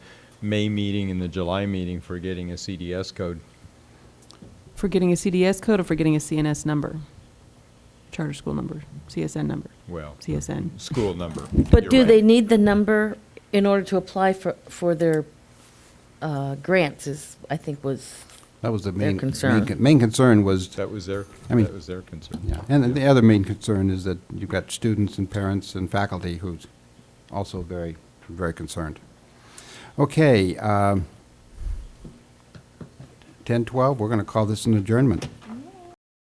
May meeting and the July meeting for getting a CDS code. For getting a CDS code or for getting a CNS number? Charter school number, CSN number, Well, CSN. school number. But You're do right. they need the number in order to apply for, for their uh, grants is, I think was, That was the Their main, main concern. con- main concern was, That was their, I mean- that was their concern. yeah. And the other main concern is that you've got students and parents and faculty who's also very, very concerned. Okay, um, 10:12, we're going to call this an adjournment.